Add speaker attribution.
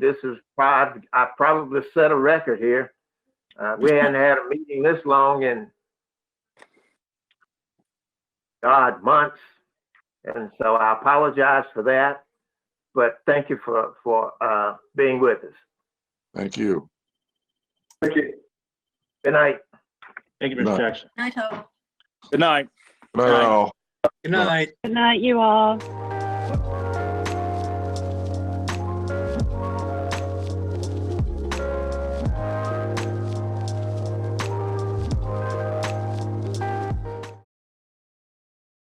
Speaker 1: this is probably, I probably set a record here. Uh, we hadn't had a meeting this long in, God, months. And so I apologize for that, but thank you for, for, uh, being with us.
Speaker 2: Thank you.
Speaker 1: Thank you. Good night.
Speaker 3: Thank you,
Speaker 2: Good
Speaker 3: Mr.
Speaker 2: night.
Speaker 3: Jackson.
Speaker 4: Night, Hope.
Speaker 3: Good night.
Speaker 2: Bye, all.
Speaker 5: Good night.
Speaker 6: Good night, you all.